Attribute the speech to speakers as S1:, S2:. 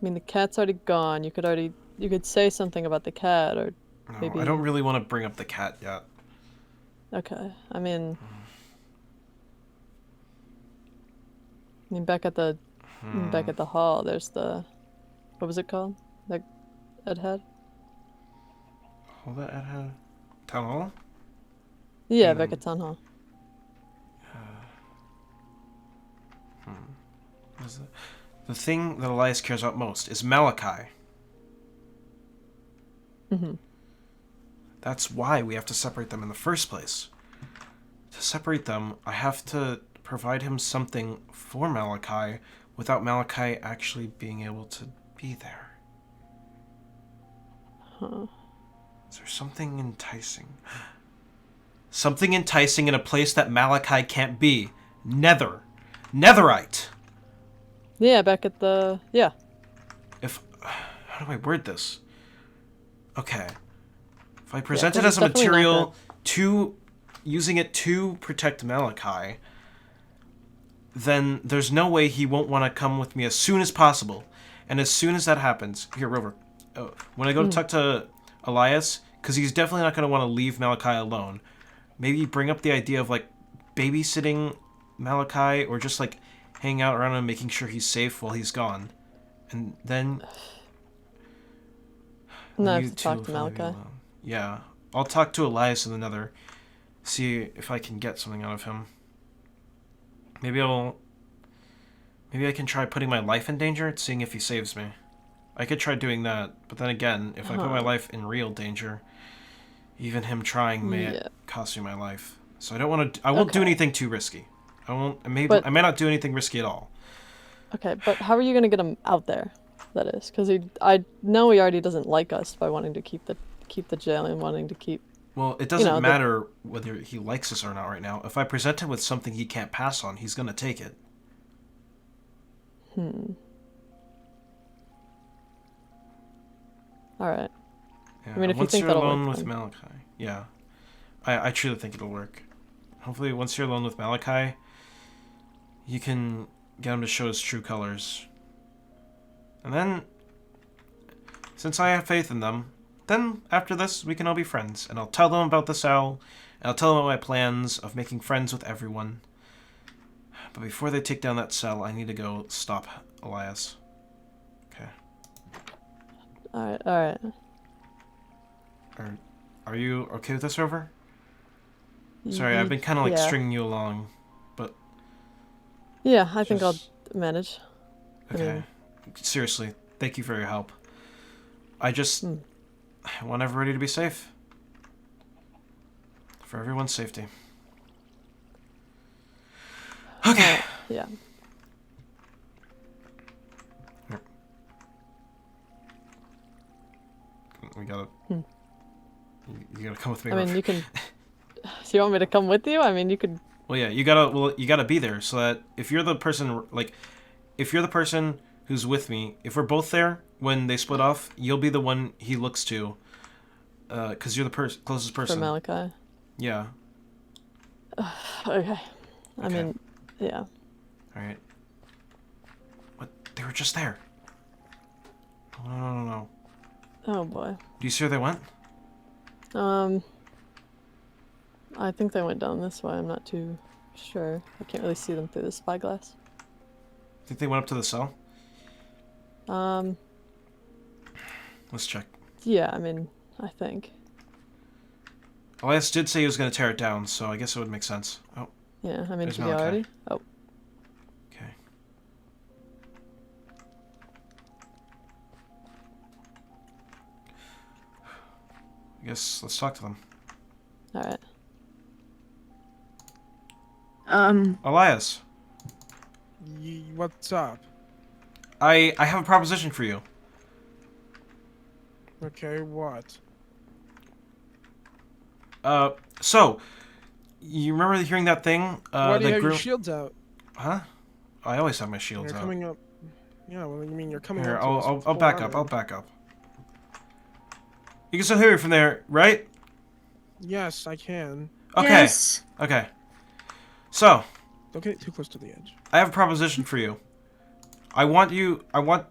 S1: mean, the cat's already gone. You could already you could say something about the cat or
S2: No,
S1: Maybe-
S2: I don't really want to bring up the cat yet.
S1: okay. I mean, I mean back at the
S2: Hmm.
S1: back at the hall, there's the what was it called? That Ed had.
S2: Hold that at a town hall.
S1: Yeah,
S2: Mm.
S1: back at town hall.
S2: What is it? The thing that Elias cares about most is Malachi.
S1: Mhm.
S2: That's why we have to separate them in the first place. To separate them, I have to provide him something for Malachi without Malachi actually being able to be there.
S1: Huh.
S2: Is there something enticing? Something enticing in a place that Malachi can't be. Nether. Netherite.
S1: Yeah, back at the yeah.
S2: If. How do I word this? Okay. If I
S1: 'cause
S2: present it
S1: it's
S2: as a
S1: definitely not
S2: material to. using it to protect Malachi, then there's no way he won't want to come with me as soon as possible. And as soon as that happens. Here, Rover. Oh, when I
S1: Hmm.
S2: go to talk to Elias, because he's definitely not going to want to leave Malachi alone, maybe bring up the idea of like babysitting Malachi or just like hanging out around him, making sure he's safe while he's gone. And then
S1: No, I
S2: you
S1: have to
S2: two
S1: talk
S2: will
S1: to
S2: probably be
S1: Malachi.
S2: alone. Yeah, I'll talk to Elias in the Nether, see if I can get something out of him. Maybe I'll. Maybe I can try putting my life in danger, and seeing if he saves me. I could try doing that, but then again, if I put my
S1: Huh.
S2: life in real danger, even him trying may
S1: Yeah.
S2: cost me my life. So I don't want to. I won't do
S1: Okay.
S2: anything too risky. I won't. Maybe
S1: But-
S2: I may not do anything risky at all.
S1: Okay, but how are you gonna get him out there? That is because he I know he already doesn't like us by wanting to keep the keep the jail and wanting to keep
S2: Well, it doesn't
S1: know, the-
S2: matter whether he likes us or not right now. If I present him with something he can't pass on, he's gonna take it.
S1: all right.
S2: Yeah,
S1: mean, if you
S2: once
S1: think
S2: are
S1: that'll work,
S2: alone with
S1: then-
S2: Malachi, yeah, I, I truly think it'll work. Hopefully, once you're alone with Malachi, you can get him to show his true colors. And then, since I have faith in them, then after this we can all be friends, and I'll tell them about this owl, and I'll tell them about my plans of making friends with everyone. But before they take down that cell, I need to go stop Elias. Okay.
S1: All right, all right.
S2: Are, are you okay with this, Rover? Sorry, I've
S1: Ye-
S2: been kind of like
S1: yeah.
S2: stringing you along, but
S1: Yeah, I think
S2: just-
S1: I'll manage. I
S2: okay.
S1: mean-
S2: Seriously, thank you for your help. I just
S1: Mm.
S2: I want everybody to be safe. For everyone's safety. Okay.
S1: Yeah.
S2: We gotta.
S1: Hmm.
S2: You, you gotta come with me.
S1: I mean,
S2: Rover.
S1: you can. Do you want me to come with you? I mean, you could.
S2: Well, yeah, you gotta well, you gotta be there so that if you're the person like, if you're the person who's with me, if we're both there when they split off, you'll be the one he looks to, uh, cause you're the pers- closest
S1: For
S2: person.
S1: Malachi.
S2: yeah.
S1: Okay. I
S2: Okay.
S1: mean, yeah.
S2: All right. What? They were just there. No, no, no, no, no.
S1: Oh boy.
S2: Do you see where they went?
S1: Um. I think they went down this way. I'm not too sure. I can't really see them through the spyglass.
S2: Think they went up to the cell?
S1: Um.
S2: Let's check.
S1: Yeah. I mean, I think.
S2: Elias did say he was gonna tear it down, so I guess it would make sense. Oh,
S1: Yeah. I mean,
S2: There's
S1: should be
S2: Malachi.
S1: already. Oh.
S2: okay. I guess let's talk to them.
S1: All right.
S3: Um,
S2: Elias,
S4: Y- what's up?
S2: I I have a proposition for you.
S4: Okay, what?
S2: Uh, so you remember hearing that thing? Uh,
S4: Why do you
S2: that
S4: have
S2: grew-
S4: your shields out?
S2: Huh? I always have my
S4: You're
S2: shields out.
S4: coming up. Yeah, well, you mean you're coming
S2: Here,
S4: up. to
S2: I'll,
S4: us
S2: I'll,
S4: with
S2: I'll
S4: full
S2: back up. I'll
S4: armor.
S2: back up. You can still hear me from there, right?
S4: Yes, I can.
S2: Okay.
S3: yes.
S2: Okay. So,
S4: Don't get too close to the edge.
S2: I have a proposition for you. I want you. I want